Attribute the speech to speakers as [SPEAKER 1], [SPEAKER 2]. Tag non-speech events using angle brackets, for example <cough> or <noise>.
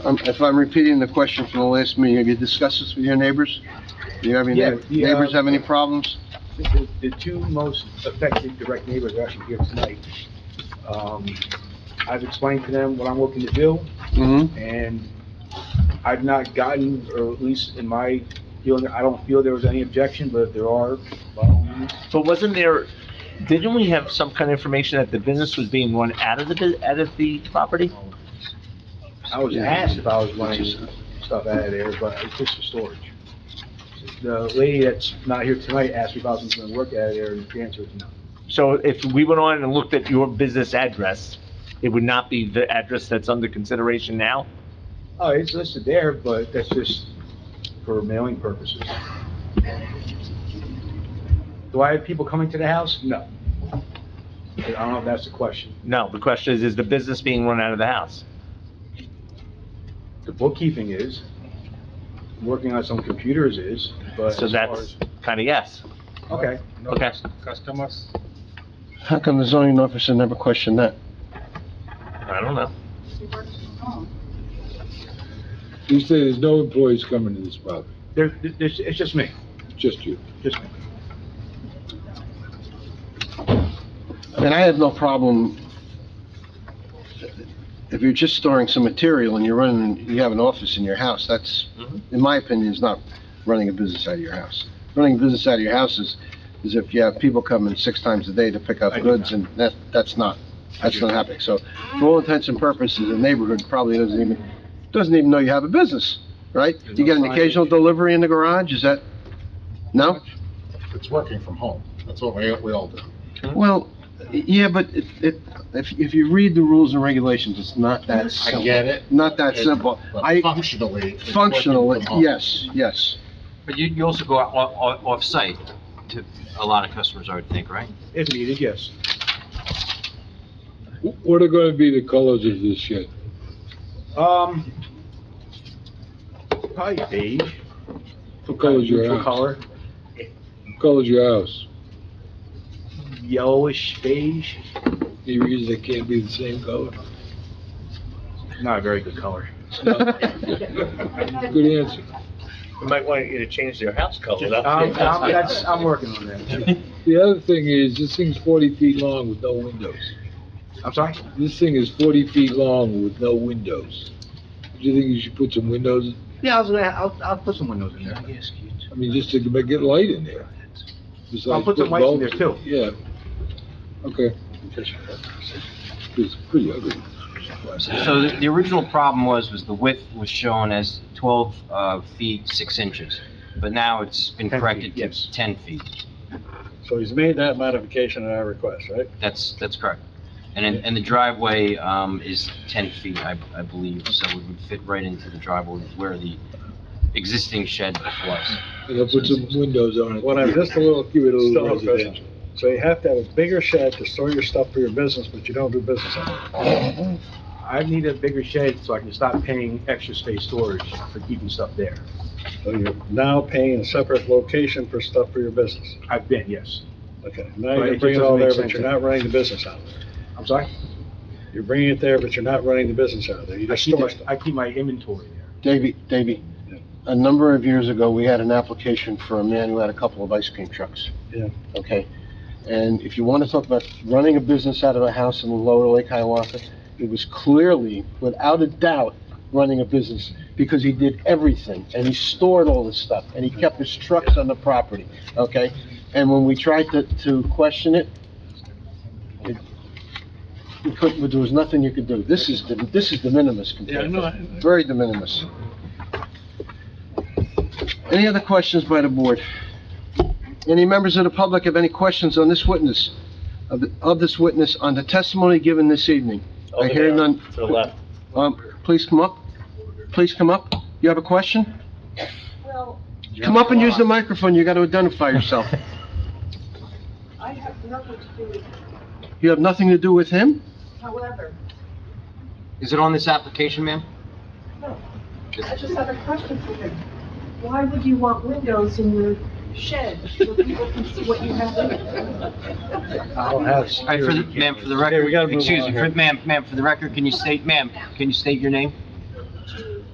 [SPEAKER 1] Um, if I'm repeating the question from the last meeting, have you discussed this with your neighbors? Do you have any,
[SPEAKER 2] Yeah, the, uh,
[SPEAKER 1] neighbors have any problems?
[SPEAKER 2] The, the two most affected direct neighbors are actually here tonight. Um, I've explained to them what I'm looking to do,
[SPEAKER 1] Mm-hmm,
[SPEAKER 2] and I've not gotten, or at least in my feeling, I don't feel there was any objection, but if there are, well,
[SPEAKER 3] But wasn't there, didn't we have some kind of information that the business was being run out of the, bu- out of the property?
[SPEAKER 2] I was asked if I was wanting stuff out of there, but it's just for storage. The lady that's not here tonight asked me if I was gonna work out of there, and the answer is no.
[SPEAKER 3] So if we went on and looked at your business address, it would not be the address that's under consideration now?
[SPEAKER 2] Oh, it's listed there, but that's just for mailing purposes. Do I have people coming to the house? No. I don't know if that's the question.
[SPEAKER 3] No, the question is, is the business being run out of the house?
[SPEAKER 2] The bookkeeping is, working on some computers is, but
[SPEAKER 3] So
[SPEAKER 2] as far as...
[SPEAKER 3] that's kind of yes.
[SPEAKER 2] Okay,
[SPEAKER 4] No
[SPEAKER 3] Okay.
[SPEAKER 4] cus- customers,
[SPEAKER 1] how come the zoning officer never questioned that?
[SPEAKER 3] I don't know.
[SPEAKER 5] You say there's no employees coming to this property,
[SPEAKER 2] there, there- it's it's just me,
[SPEAKER 5] just you.
[SPEAKER 2] just me.
[SPEAKER 1] And I have no problem, if you're just storing some material and you're running, you have an office in your house, that's,
[SPEAKER 3] Mhm.
[SPEAKER 2] Mm-hmm.
[SPEAKER 1] in my opinion, is not running a business out of your house. Running a business out of your house is, is if you have people coming six times a day to pick up
[SPEAKER 2] I do
[SPEAKER 1] goods, and that, that's not, that's not happening. So, for all intents and purposes, the neighborhood probably doesn't even, doesn't even know you have a business, right?
[SPEAKER 2] There's
[SPEAKER 1] You
[SPEAKER 2] no
[SPEAKER 1] get an
[SPEAKER 2] signage.
[SPEAKER 1] occasional delivery in the garage, is that, no?
[SPEAKER 6] It's working from home. That's what we, we all do.
[SPEAKER 1] Well, yeah, but it, it, if, if you read the rules and regulations, it's not that
[SPEAKER 6] I
[SPEAKER 1] simple.
[SPEAKER 6] get it,
[SPEAKER 1] Not that simple.
[SPEAKER 6] but
[SPEAKER 1] I,
[SPEAKER 6] functionally. it's working
[SPEAKER 1] functional,
[SPEAKER 6] from home.
[SPEAKER 1] yes, yes.
[SPEAKER 7] But you, you also go out off, off, off-site to a lot of customers, I would think, right?
[SPEAKER 2] If needed, yes.
[SPEAKER 5] Wh- What are gonna be the colors of this shed?
[SPEAKER 2] Um, probably beige.
[SPEAKER 5] What color's your
[SPEAKER 2] Neutral
[SPEAKER 5] house?
[SPEAKER 2] color,
[SPEAKER 5] What Color's your house?
[SPEAKER 2] yellowish beige,
[SPEAKER 5] Any reason it can't be the same <laughs> color?
[SPEAKER 2] not a very good
[SPEAKER 5] <laughs>
[SPEAKER 2] color. <laughs>
[SPEAKER 5] Good answer.
[SPEAKER 3] We might want you to change their house color.
[SPEAKER 2] Um, I'm, that's, I'm working on that.
[SPEAKER 5] The other thing is, this thing's forty feet long with no windows.
[SPEAKER 2] I'm sorry?
[SPEAKER 5] This thing is forty feet long with no windows. Do you think you should put some windows,
[SPEAKER 2] Yeah, I was gonna, I'll, I'll put some windows in there.
[SPEAKER 5] I mean, just to make- get light in there? Besides
[SPEAKER 2] I'll put some
[SPEAKER 5] putting
[SPEAKER 2] lights in there too.
[SPEAKER 5] bulbs Yeah. Okay. It's pretty ugly.
[SPEAKER 7] So the, the original problem was, was the width was shown as twelve, uh, feet, six inches. But now it's been
[SPEAKER 2] 10 feet,
[SPEAKER 7] corrected
[SPEAKER 2] yes.
[SPEAKER 7] to ten feet.
[SPEAKER 4] so he's made that modification at our request, right?
[SPEAKER 7] That's, that's correct. And, then- and the driveway, um, is ten feet, I, I believe, so it would fit right into the driveway where the existing shed was.
[SPEAKER 5] And I'll put some windows on it.
[SPEAKER 4] What I'm just a
[SPEAKER 5] little, give it a
[SPEAKER 4] Still
[SPEAKER 5] little
[SPEAKER 4] no question.
[SPEAKER 5] residential.
[SPEAKER 4] So you have to have a bigger shed to store your stuff for your business, but you don't do business out of it.
[SPEAKER 2] I need a bigger shed so I can stop paying extra space storage for keeping stuff there.
[SPEAKER 4] So you're now paying a separate location for stuff for your business.
[SPEAKER 2] I've been, yes.
[SPEAKER 4] Okay, now
[SPEAKER 2] Right, it
[SPEAKER 4] you're
[SPEAKER 2] just
[SPEAKER 4] bringing it all there,
[SPEAKER 2] doesn't make
[SPEAKER 4] but you're
[SPEAKER 2] sense.
[SPEAKER 4] not running the business out of it.
[SPEAKER 2] I'm sorry?
[SPEAKER 4] You're bringing it there, but you're not running the business out of there. You
[SPEAKER 2] I
[SPEAKER 4] just
[SPEAKER 2] keep,
[SPEAKER 4] store
[SPEAKER 2] my-
[SPEAKER 4] stuff.
[SPEAKER 2] I keep my inventory there.
[SPEAKER 1] Davey, Davey, a number of years ago, we had an application for a man who had a couple of ice cream trucks.
[SPEAKER 4] Yeah.
[SPEAKER 1] Okay? And if you want to talk about running a business out of a house in the lower Lake Hiawatha, it was clearly, without a doubt, running a business because he did everything and he stored all this stuff and he kept his trucks on the property, okay? And when we tried to, to question it, it, we couldn't, there was nothing you could do. This is, the this is de minimis compared to very de minimis. Any other questions by the board? Any members of the public have any questions on this witness, of, the- of this witness on the testimony given this evening? I hear none.
[SPEAKER 3] To the left.
[SPEAKER 1] Um, please come up. Please come up. You have a question?
[SPEAKER 8] Well,
[SPEAKER 1] Come up and use the microphone. You gotta identify yourself.
[SPEAKER 8] I have nothing to do with,
[SPEAKER 1] You have nothing to do with him?
[SPEAKER 8] however,
[SPEAKER 7] Is it on this application, ma'am?
[SPEAKER 8] I just have a question for you. Why would you want windows in your shed so people can see what you have in it?
[SPEAKER 2] I don't have
[SPEAKER 7] All right, for the,
[SPEAKER 2] security
[SPEAKER 7] ma'am, for the
[SPEAKER 2] cameras.
[SPEAKER 4] Okay, we
[SPEAKER 7] record,
[SPEAKER 4] gotta move
[SPEAKER 7] excuse
[SPEAKER 4] on
[SPEAKER 7] me,
[SPEAKER 4] here.
[SPEAKER 7] for- ma'am, ma'am, for the record, can you state, ma'am, can you state your name?